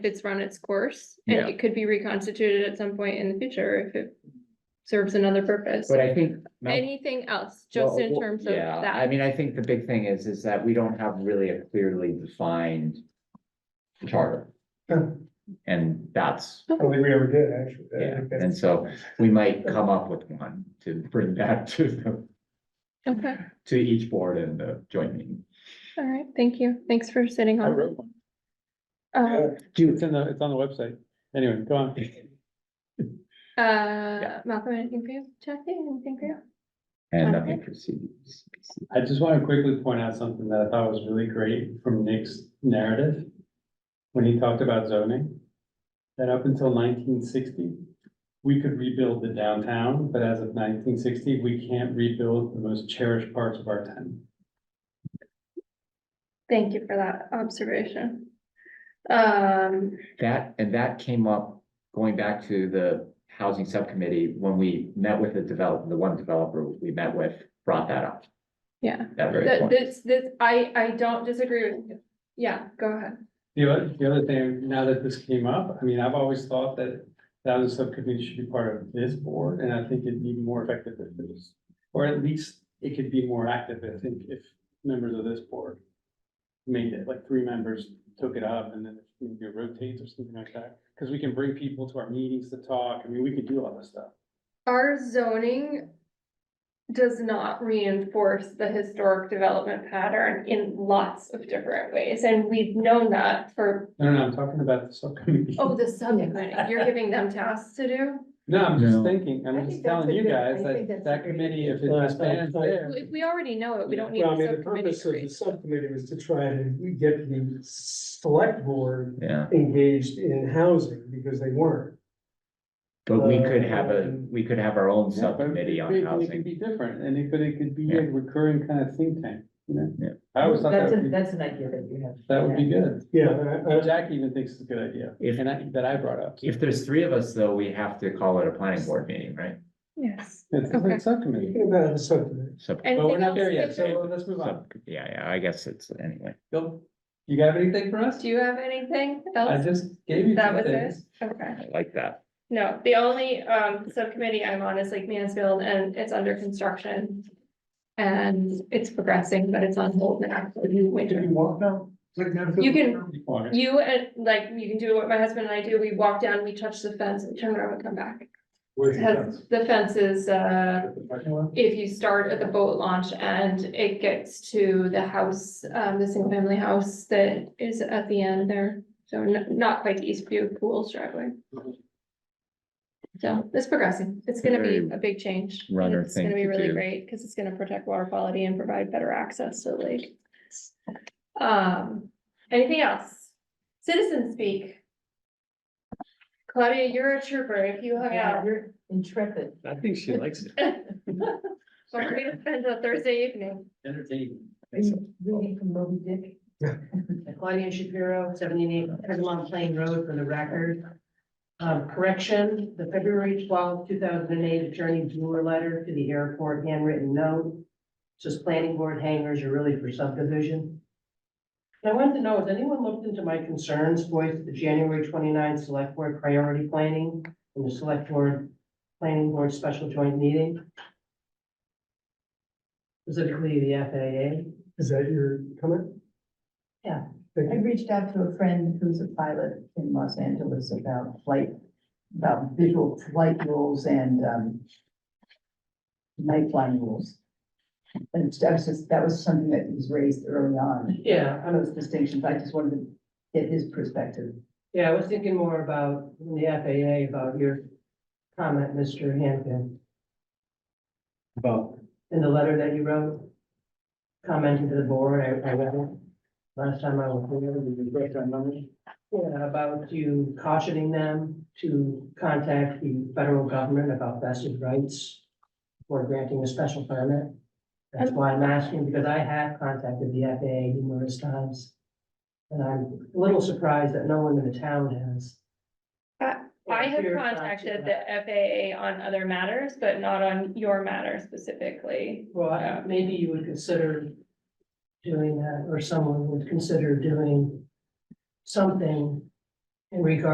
it's run its course, and Yeah. it could be reconstituted at some point in the future if it serves another purpose. But I think. Mel- Anything else, just in Well, terms of yeah, I that? mean, I think the big thing is, is that we don't have really a clearly defined charter, Sure. and that's, I don't think we ever did, actually. Uh, I yeah, think that's- and so we might come up with one to bring back to the, Okay, to each board in the joint meeting. all right, thank you. Thanks for sitting I on. wrote one. Uh, It's in the, it's on the website. Anyway, go on. uh, Malcolm, anything for you? Jackie, anything for you? And nothing proceeds. I just want to quickly point out something that I thought was really great from Nick's narrative. When he talked about zoning, that up until nineteen sixty, we could rebuild the downtown, but as of nineteen sixty, we can't rebuild the most cherished parts of our town. Thank you for that observation. Um, That, and that came up, going back to the housing subcommittee, when we met with the develop, the one developer we met with, brought that up, yeah, that very Th- point. this, this, I, I don't disagree with you. Yeah, go ahead. The other, the other thing, now that this came up, I mean, I've always thought that that was subcommittee should be part of this board, and I think it'd be more effective if it was. Or at least it could be more active, I think, if members of this board made it, like three members took it up and then maybe it rotates or something like that. Because we can bring people to our meetings to talk, I mean, we could do all this stuff. Our zoning does not reinforce the historic development pattern in lots of different ways, and we've known that for, No, no, I'm talking about the subcommittee. oh, the subcommittee, you're giving them tasks to do? No, I'm just No. thinking, I'm just telling you guys that that committee, if it expands there. We, we already know it, we don't need Well, I a mean, the subcommittee. purpose of the created. subcommittee was to try and get the select board Yeah, engaged in housing because they weren't. but we could have a, we could have our own Uh, Yeah, but subcommittee it- on it could housing. Be different, and it could, it could be a recurring kind of think tank, you know? Yeah. I always thought that That's, would a- be, that's an idea that you have. that would be good. Uh, Yeah, I, I, Jack even thinks it's a good idea, If- and I, that I brought up. If there's three of us, though, we have to call it a planning board meeting, right? Yes. It's Okay. a subcommittee, thinking about the subcommittee. Sub, but we're Anything not there yet, else? so let's move on. sub, yeah, yeah, I guess it's, anyway. Bill, you got anything for us? Do you have anything I else? just gave you That some was it? things. Okay. I like that. No, the only um subcommittee I'm on is Lake Mansfield and it's under construction. And it's progressing, but it's on hold now. for the winter. walk now? You can, Water. you and like, you can do what my husband and I do. We walk down, we touch the fence, we turn around and come back. It has- The fence is uh, Parking lot? if you start at the boat launch and it gets to the house, um, the single family house that is at the end there. So n- not quite Eastview Pools driveway. So it's progressing. It's gonna be Very a big change. and runner It's gonna thing be to really do. great because it's gonna protect water quality and provide better access to the lake. Um, anything else? Citizen speak. Claudia, you're a trooper. If you hung Yeah, out, you're intrepid. I think she likes it. we're gonna spend a Thursday evening. Entertaining. Reading from Moby Dick. Claudia Shapiro, seventy-eight Pergamon Plain Road for the record. Um, correction, the February twelfth, two thousand and eight Attorney Brewer letter to the airport handwritten note. Says planning board hangers are really for subdivision. And I wanted to know, has anyone looked into my concerns voiced at the January 29th select board priority planning and the select board planning board special joint meeting? Specifically the FAA. Is that your comment? I reached out to a friend who's a pilot in Los Angeles about flight, about visual flight rules and, um, night flying rules. And that was just, that was something that was raised early on, Yeah, one of those distinctions. I just wanted to get his perspective. Yeah, I was thinking more about the FAA, about your comment, Mr. Hankin, About in the letter that you wrote. Commenting to the board, I, I read it last time I was the here. restaurant numbers? Yeah, about you cautioning them to contact the federal government about vested rights for granting a special permit. That's why I'm asking, because I have contacted the FAA numerous times. And I'm a little surprised that no one in the town has. I- Uh, I have Your thoughts contacted about the FAA on other matters, but not on your matter specifically. Well, I- maybe you would consider doing that, or someone would consider doing something in regard